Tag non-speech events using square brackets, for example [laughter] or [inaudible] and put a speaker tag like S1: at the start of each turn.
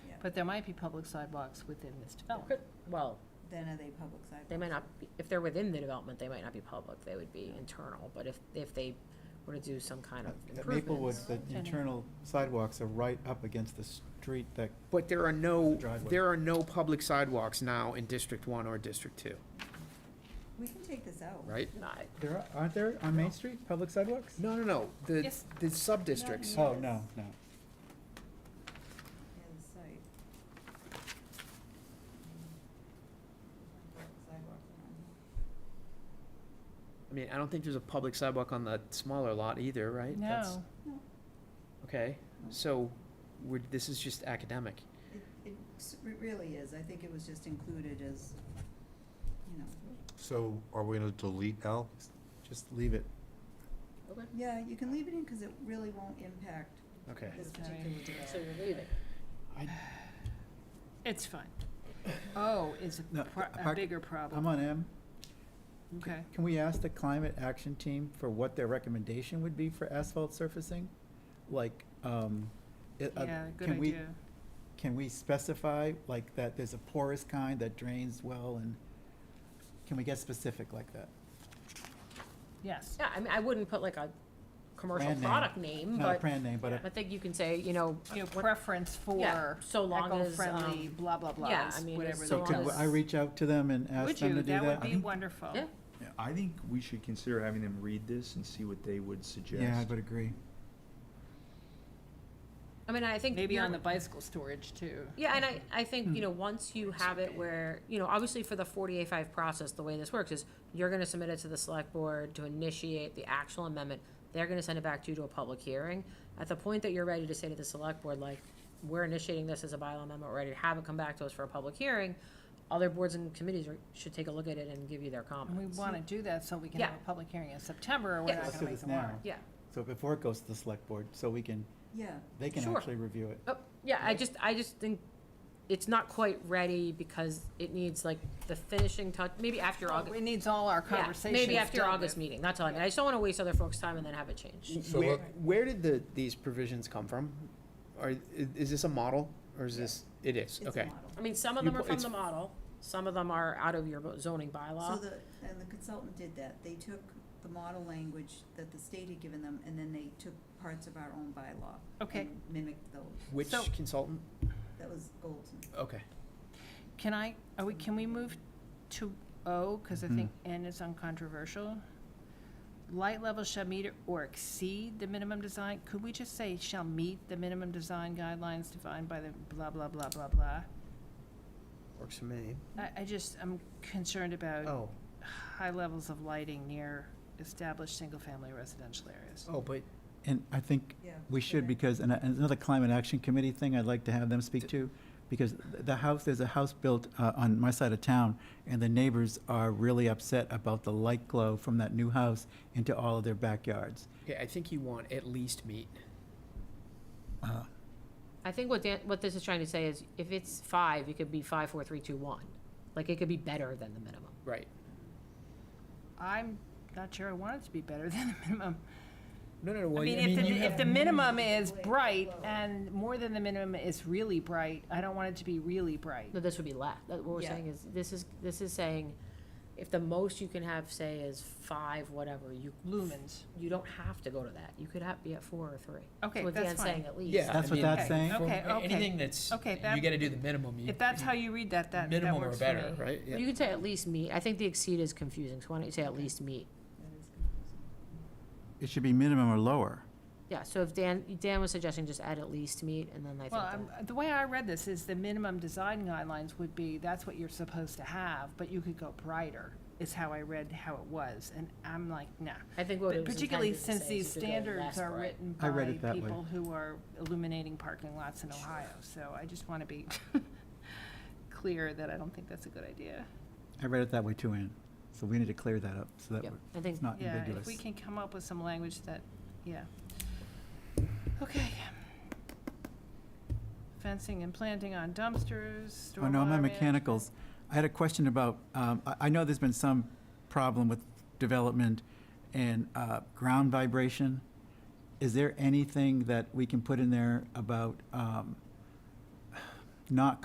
S1: But there might be public sidewalks within this
S2: Oh,
S1: development.
S2: Could- Well,
S3: Then are they public sidewalks?
S2: they might not, be if they're within the development, they might not be public, they would be internal, but if, if they were to do some kind of
S4: At
S2: improvements.
S4: Maplewood, the internal sidewalks are right up against the street that,
S5: But there are no,
S4: Driveway.
S5: there are no public sidewalks now in District One or District Two,
S3: We can take this out.
S5: right?
S2: Not-
S4: there are- aren't there on Main Street, public sidewalks?
S5: No, no, no, the,
S1: Yes.
S5: the sub-districts.
S4: Oh, no, no.
S3: Yeah, the site. Sidewalks around.
S5: I mean, I don't think there's a public sidewalk on the smaller lot either, right? That's-
S1: No,
S5: Okay, so we're, this is just academic.
S3: It, it s- it really is, I think it was just included as, you know,
S6: So are we gonna delete L?
S4: Just leave it.
S2: Okay,
S3: yeah, you can leave it in because it really won't impact
S5: Okay.
S3: this
S1: Sorry.
S3: particular
S2: so
S3: development.
S2: you're leaving.
S1: it's fine. O is a
S4: No,
S1: pro- a
S4: Park-
S1: bigger
S4: I'm
S1: problem.
S4: on M.
S1: Okay.
S4: Can we ask the climate action team for what their recommendation would be for asphalt surfacing? Like, um, it, uh,
S1: Yeah, good
S4: can we,
S1: idea.
S4: can we specify, like, that there's a porous kind that drains well and, can we get specific like that?
S1: Yes.
S2: Yeah, I mean, I wouldn't put like a commercial
S4: Brand name.
S2: product name,
S4: Not a
S2: but,
S4: brand name, but a
S2: I think you can say, you know,
S1: You know,
S2: what-
S1: preference
S2: yeah,
S1: for
S2: so long as,
S1: eco-friendly,
S2: um,
S1: blah, blah, blah,
S2: yeah,
S1: is
S2: I mean,
S1: whatever
S2: so
S1: that
S2: can
S4: Could
S1: is.
S4: I reach out to them and ask
S1: Would
S4: them
S1: you?
S4: to do
S1: That
S4: that?
S1: would be wonderful.
S2: Yeah.
S7: Yeah, I think we should consider having them read this and see what they would suggest.
S4: Yeah, I would agree.
S2: I mean, I think.
S1: Maybe
S2: you're-
S1: on the bicycle storage too.
S2: Yeah, and I, I
S1: Hmm.
S2: think, you know, once you have it where, you know, obviously for the forty-eight five process, the way this works is you're gonna submit it to the select board to initiate the actual amendment. They're gonna send it back to you to a public hearing. At the point that you're ready to say to the select board, like, we're initiating this as a bylaw amendment, we're ready to have it come back to us for a public hearing, other boards and committees are- should take a look at it and give you their
S1: And we
S2: comments.
S1: want to do that so we can
S2: Yeah.
S1: have a public hearing in September or we're
S2: Yeah.
S1: not
S4: Let's
S1: going to
S4: do
S1: make
S4: this
S1: the
S4: now.
S1: warrant.
S2: Yeah,
S4: So before it goes to the select board, so we can,
S3: Yeah,
S4: they can
S2: Sure.
S4: actually review it.
S2: oh, yeah, I just, I just think it's not quite ready because it needs like the finishing touch, maybe after August.
S1: It needs all our
S2: Yeah,
S1: conversations.
S2: Maybe after your
S1: dealt
S2: August
S1: with.
S2: meeting, that's all I mean, I just don't wanna waste other folks' time and then have it changed.
S6: So
S5: Where,
S6: let-
S5: where did the, these provisions come from? Are, i- is this a model or is this, it is,
S3: it's a
S5: okay.
S3: model.
S2: I mean, some of
S5: You
S2: them are
S5: put-
S2: from
S5: it's-
S2: the model, some of them are out of your bo- zoning
S3: So
S2: bylaw.
S3: the, and the consultant did that, they took the model language that the state had given them, and then they took parts of our own bylaw.
S1: Okay.
S3: and Mimicked those,
S5: Which
S1: So-
S5: consultant?
S3: that was Golden.
S5: Okay.
S1: Can I, are we, can we move to O, because I
S4: Hmm.
S1: think N is uncontroversial? Light levels shall meet or exceed the minimum design, could we just say shall meet the minimum design guidelines defined by the blah, blah, blah, blah, blah?
S5: Works for me.
S1: I, I just, I'm concerned about
S5: Oh,
S1: high levels of lighting near established single-family residential areas.
S5: oh, but
S4: And I think
S3: Yeah.
S4: we should, because, and I- and another climate action committee thing I'd like to have them speak to, because the house, there's a house built uh, on my side of town, and the neighbors are really upset about the light glow from that new house into all of their backyards.
S5: Okay, I think you want at least meet.
S2: I think what Dan, what this is trying to say is, if it's five, it could be five, four, three, two, one. Like, it could be better than the minimum.
S5: Right.
S1: I'm not sure I want it to be better [laughs] than the minimum.
S5: No, no, no.
S1: I
S5: well,
S1: mean, if
S4: you
S1: the, if
S4: have-
S1: the minimum is bright and more than the minimum is really bright, I don't want it to be really bright.
S2: No, this would be less, That- what we're
S3: Yeah.
S2: saying is, this is, this is saying, if the most you can have, say, is five, whatever, you,
S1: Lumens.
S2: you don't have to go to that, you could have, be at four or three.
S1: Okay,
S2: So what
S1: that's
S2: Dan's saying
S1: fine.
S2: At least.
S5: Yeah.
S4: That's
S5: I
S4: what
S5: mean,
S4: that's
S1: Okay,
S4: saying.
S1: okay.
S5: a- Anything that's,
S1: Okay, that-
S5: you gotta do the minimum. you-
S1: If that's how you read that, that, that
S5: Minimum or
S1: works for
S5: better,
S1: me.
S5: right? Yeah.
S2: Well, You could say at least meet, I think the exceed is confusing, so why don't you say at least meet?
S3: That is confusing.
S4: It should be minimum or lower.
S2: Yeah, so if Dan, Dan was suggesting just add at least meet, and then I think
S1: Well,
S2: that.
S1: I'm, the way I read this is the minimum design guidelines would be, that's what you're supposed to have, but you could go brighter, is how I read how it was, and I'm like, nah.
S2: I think what it
S1: But
S2: was
S1: Particularly
S2: intended to
S1: since
S2: say
S1: these
S2: is you could go
S1: standards
S2: less
S1: are
S2: bright.
S1: written
S4: I read
S1: by
S4: it that way.
S1: people who are illuminating parking lots in Ohio, so I just wanna be [laughs] clear that I don't think that's a good idea.
S4: I read it that way too, Ann, so we need to clear that up, so that
S2: Yep,
S4: we're-
S2: I think,
S4: it's not
S1: Yeah,
S4: ambiguous.
S1: if we can come up with some language that, yeah. Okay. Fencing and planting on dumpsters, stormwater.
S4: Oh, no, I'm on
S1: management.
S4: mechanicals. I had a question about, um, I, I know there's been some problem with development and, uh, ground vibration. Is there anything that we can put in there about, um, [sighs] not